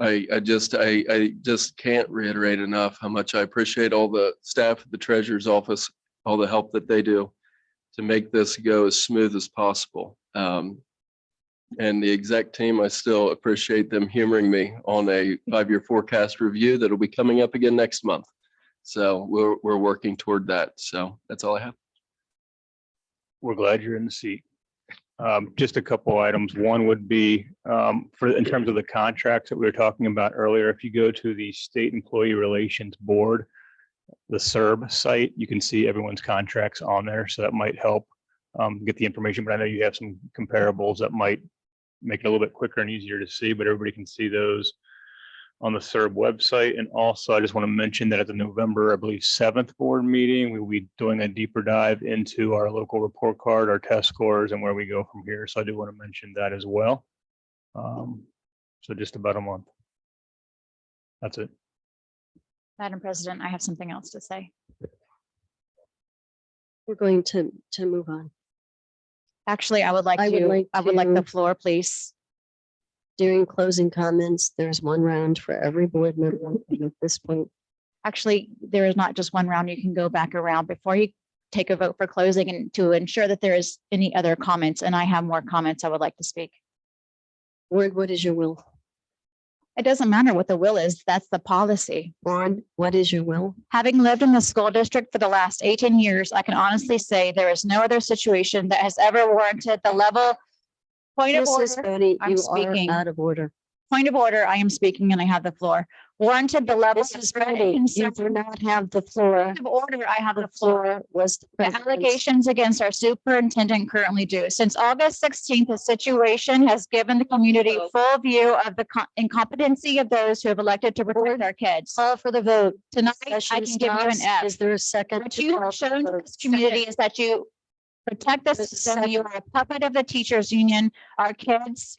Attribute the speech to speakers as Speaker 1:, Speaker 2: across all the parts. Speaker 1: I, I just, I, I just can't reiterate enough how much I appreciate all the staff at the treasurer's office, all the help that they do to make this go as smooth as possible. Um, and the exec team, I still appreciate them humoring me on a five-year forecast review that'll be coming up again next month. So we're, we're working toward that. So that's all I have.
Speaker 2: We're glad you're in the seat. Um, just a couple items. One would be, um, for, in terms of the contracts that we were talking about earlier, if you go to the State Employee Relations Board, the SERB site, you can see everyone's contracts on there, so that might help, um, get the information, but I know you have some comparables that might make it a little bit quicker and easier to see, but everybody can see those on the SERB website. And also, I just want to mention that at the November, I believe, seventh board meeting, we'll be doing a deeper dive into our local report card, our test scores, and where we go from here. So I do want to mention that as well. Um, So just about a month. That's it.
Speaker 3: Madam President, I have something else to say.
Speaker 4: We're going to, to move on.
Speaker 3: Actually, I would like
Speaker 4: I would
Speaker 3: to,
Speaker 4: like
Speaker 3: I would like the
Speaker 4: to-
Speaker 3: floor, please.
Speaker 4: During closing comments, there's one round for every board member. And At this point,
Speaker 3: Actually, there is not just one round. You can go back around before you take a vote for closing and to ensure that there is any other comments. And I have more comments I would like to speak.
Speaker 4: board, what is your will?
Speaker 3: It doesn't matter what the will is. That's the policy.
Speaker 4: Board, what is your will?
Speaker 3: Having lived in the school district for the last eighteen years, I can honestly say there is no other situation that has ever warranted the level point of
Speaker 4: Mrs.
Speaker 3: order.
Speaker 4: Bodie,
Speaker 3: I'm
Speaker 4: you
Speaker 3: speaking.
Speaker 4: are out of order.
Speaker 3: Point of order, I am speaking and I have the floor. Warranted the level. of
Speaker 4: Mrs.
Speaker 3: threat and
Speaker 4: Bodie, you
Speaker 3: concern.
Speaker 4: do not have the floor.
Speaker 3: Point of order, I have
Speaker 4: The
Speaker 3: the floor.
Speaker 4: floor was the
Speaker 3: The
Speaker 4: president's.
Speaker 3: allegations against our superintendent currently do. Since August sixteenth, the situation has given the community full view of the co- incompetency of those who have elected to protect our kids.
Speaker 4: Call for the vote.
Speaker 3: Tonight, I can
Speaker 4: Session
Speaker 3: give you an
Speaker 4: stops.
Speaker 3: F.
Speaker 4: Is there a second?
Speaker 3: What
Speaker 4: to
Speaker 3: you
Speaker 4: call
Speaker 3: have
Speaker 4: for
Speaker 3: shown to
Speaker 4: vote?
Speaker 3: this community is that you protect the
Speaker 4: This is
Speaker 3: system. You are a puppet of the teachers' union, our kids,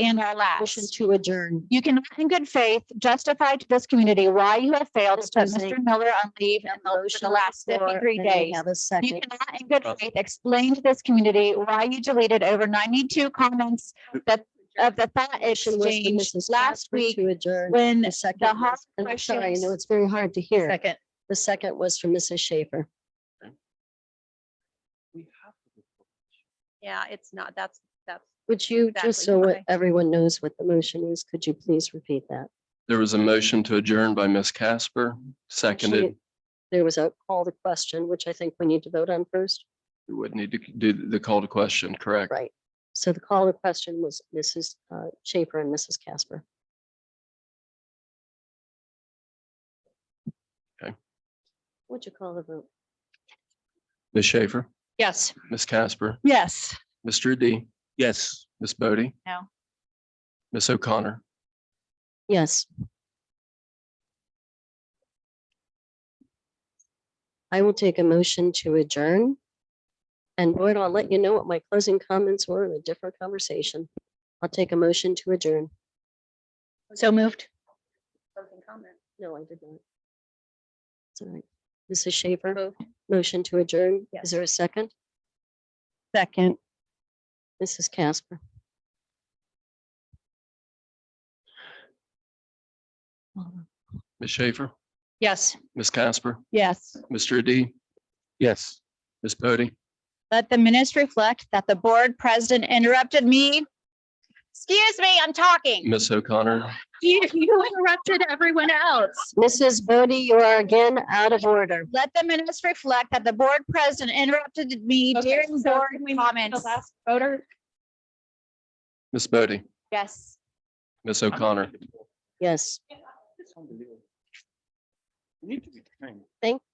Speaker 3: and our
Speaker 4: Motion
Speaker 3: lives.
Speaker 4: to adjourn.
Speaker 3: You cannot in good faith justify to this community why you have failed to put
Speaker 4: Mr. Zink,
Speaker 3: Mr. Miller on leave in the- for
Speaker 4: Motion
Speaker 3: the
Speaker 4: on the
Speaker 3: last
Speaker 4: floor,
Speaker 3: fifty-three
Speaker 4: and we
Speaker 3: days.
Speaker 4: Have a
Speaker 3: You
Speaker 4: second.
Speaker 3: cannot in good
Speaker 1: Uh,
Speaker 3: faith explain to this community why you deleted over ninety-two comments that, of the thought
Speaker 4: Motion was for
Speaker 3: exchange
Speaker 4: Mrs.
Speaker 3: last
Speaker 4: Casper
Speaker 3: week
Speaker 4: To adjourn.
Speaker 3: when
Speaker 4: The second,
Speaker 3: hard
Speaker 4: was- and I'm sorry, I know
Speaker 3: questions-
Speaker 4: it's very hard to hear.
Speaker 3: Second.
Speaker 4: The second was from Mrs. Schaefer.
Speaker 5: Yeah, it's not, that's, that's.
Speaker 4: Would you, just
Speaker 5: Exactly,
Speaker 4: so what
Speaker 5: okay.
Speaker 4: everyone knows what the motion is, could you please repeat that?
Speaker 1: There was a motion to adjourn by Ms. Casper, seconded.
Speaker 4: Actually, There was a call to question, which I think we need to vote on first.
Speaker 1: We would need to do the call to question, correct?
Speaker 4: Right. So the call to question was Mrs. uh, Schaefer and Mrs. Casper.
Speaker 1: Okay.
Speaker 4: Would you call the vote?
Speaker 1: Ms. Schaefer,
Speaker 3: Yes.
Speaker 1: Ms. Casper,
Speaker 3: Yes.
Speaker 1: Mr. D. Yes. Ms. Bodie.
Speaker 3: No.
Speaker 1: Ms. O'Connor.
Speaker 4: Yes. I will take a motion to adjourn. And Boyd, I'll let you know what my closing comments were in a different conversation. I'll take a motion to adjourn.
Speaker 3: So moved.
Speaker 5: Closing comment.
Speaker 4: No, I did not. Sorry. Mrs. Schaefer, motion to adjourn. Is there a second? Second. Mrs. Casper.
Speaker 1: Ms. Schaefer,
Speaker 3: Yes.
Speaker 1: Ms. Casper,
Speaker 3: Yes.
Speaker 1: Mr. D. Yes. Ms. Bodie.
Speaker 3: Let the minutes reflect that the board president interrupted me. Excuse me, I'm talking.
Speaker 1: Ms. O'Connor.
Speaker 3: You you interrupted everyone else.
Speaker 4: Mrs. Bodie, you are again out of order.
Speaker 3: Let the minutes reflect that the board president interrupted me during board comments.
Speaker 5: voter?
Speaker 1: Ms. Bodie.
Speaker 3: Yes.
Speaker 1: Ms. O'Connor.
Speaker 4: Yes.
Speaker 2: Need to be trained.
Speaker 4: Thank